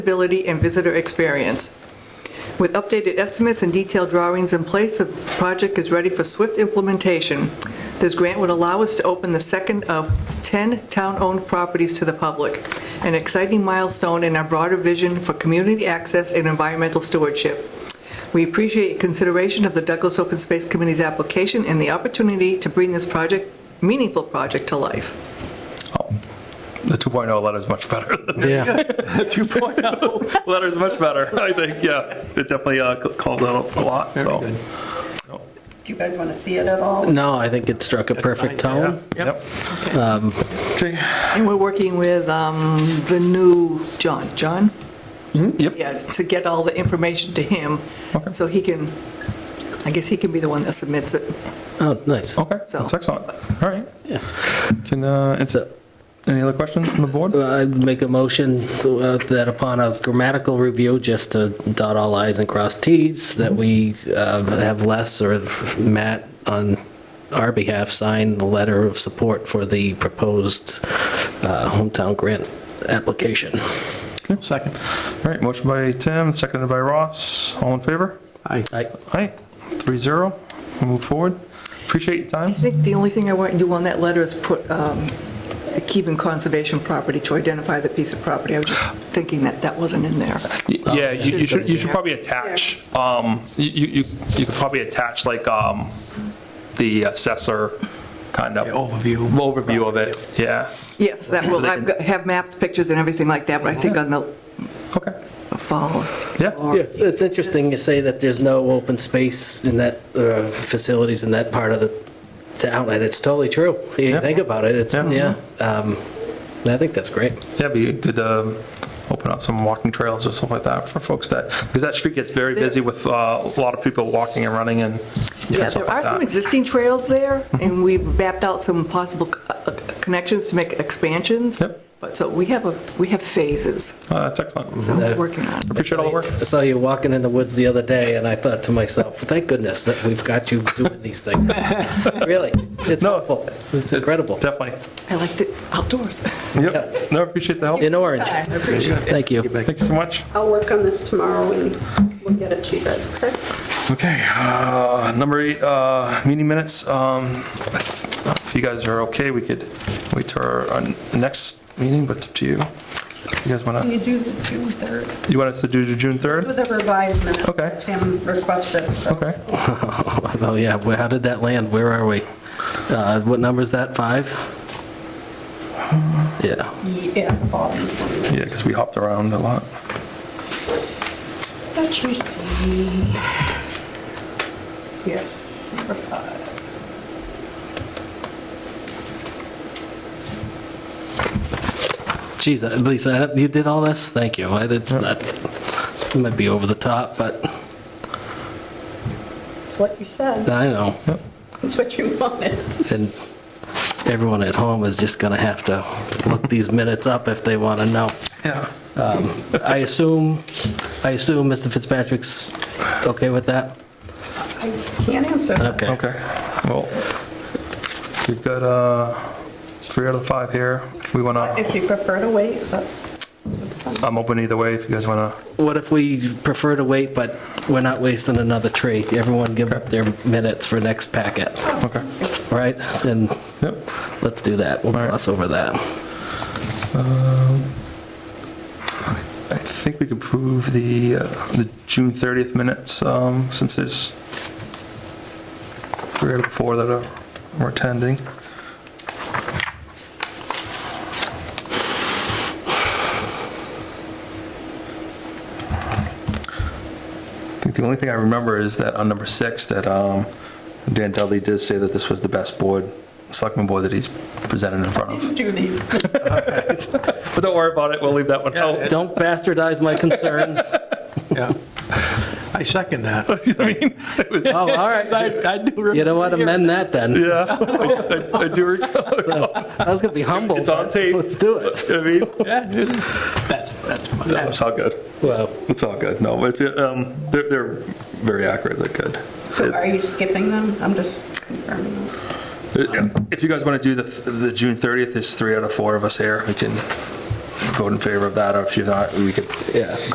Accessibility and visitor experience. With updated estimates and detailed drawings in place, the project is ready for swift implementation. This grant would allow us to open the second of 10 town-owned properties to the public, an exciting milestone in our broader vision for community access and environmental stewardship. We appreciate consideration of the Douglas Open Space Committee's application and the opportunity to bring this project, meaningful project, to life. The 2.0 letter is much better. Yeah, 2.0 letter is much better, I think, yeah. It definitely uh, c- called out a lot, so. Do you guys want to see it at all? no, I think it struck a perfect tone. Yep. Okay, And we're working with um, the new John, John? Mm-hmm. Yep. Yeah, to get all the information to him, Okay. so he can, I guess he can be the one that submits it. Oh, nice. okay, So- that's excellent. All right. Can, uh, is, So- any other questions from the board? Well, I'd make a motion uh, that upon a grammatical review, just to dot all i's and cross t's, that we uh, have Les or Matt on our behalf sign the letter of support for the proposed uh, hometown grant application. Second. All right, motion by Tim, seconded by Ross. All in favor? I- Aye, 3-0. We'll Move forward. Appreciate your time. I think the only thing I want to do on that letter is put um, the Keven Conservation property to identify the piece of property. I was just thinking that that wasn't in there. Yeah, you you should, you should Yeah. probably attach, um, you, you, you- you could probably attach like, um, the assessor kind of. Overview. Overview of it, yeah. Yes, that So will, they I've can- got- have maps, pictures, and everything like that, but I think on the Okay, fall. yeah. or- Yeah, it's interesting you say that there's no open space in that, uh, facilities in that part of the town, and it's totally true. You Yeah. think about it, it's, Yeah. yeah. um, I think that's great. Yeah, it'd be good to um, open up some walking trails or stuff like that for folks that, because that street gets very busy with uh, a lot of people walking and running and Yeah, stuff there like are some that. Mm-hmm. existing trails there, and we've mapped out some possible uh, uh, connections to make expansions. Yep. But so we have, a we have phases, Uh, That's excellent. so we're working on it. Appreciate all the work. I saw you walking in the woods the other day, and I thought to myself, thank goodness that we've got you doing these things. Really, it's No. helpful, it's incredible. Definitely. I like the outdoors. Yep, no, appreciate the help. In orange, I appreciate it. thank you. Thank you so much. I'll work on this tomorrow and we'll get it to you guys, okay? Okay, uh, number eight, uh, meeting minutes. Um, If you guys are okay, we could wait till our our next meeting, but it's up to you. You guys want You do the June 3rd, to, you want us to do the June 3rd? with a revised minute. Okay. Tim requested. Okay. Oh, yeah, well, how did that land? Where are we? Uh, What number is that, five? Yeah. Yeah, Bobby. Yeah, because we hopped around a lot. That you see. Yes, number five. Geez, uh, Lisa, you did all this? Thank you. I did, not- it might be over the top, but It's what you said. I know. It's what you wanted. And everyone at home is just going to have to look these minutes up if they want to know. Yeah. I assume, I assume Mr. Fitzpatrick's okay with that? I can't answer. that. Okay. Okay, well, we've got uh, three out of the five here. If we want to, If you prefer to wait, that's, I'm open either way if you guys want to. What if we prefer to wait, but we're not wasting another tree? Everyone give up their minutes for next packet, Okay. right? And Yep. let's do that. We'll All right. gloss over that. I think we could prove the, uh, the June 30th minutes, um, since there's three out of the four that are were attending. I think the only thing I remember is that on number six, that um, Dan Dudley did say that this was the best board, selectman board that he's presented in front of. do these. But don't worry about it, we'll leave that one out. Don't bastardize my concerns. Yeah. I second that. I mean, it was- Oh, all right. I do remember. You know what? Amend that then. Yeah, I- I I do recall. I was going to be humble. It's on but tape. Let's do it. I mean, That's, that's, no, that's it's all good. Well, It's all good. No, it's, um, they're, they're very accurate. They're good. So are you skipping them? I'm just confirming them. If you guys want to do the, the June 30th, there's three out of four of us here. We can vote in favor of that, or if you're not, we could Yeah.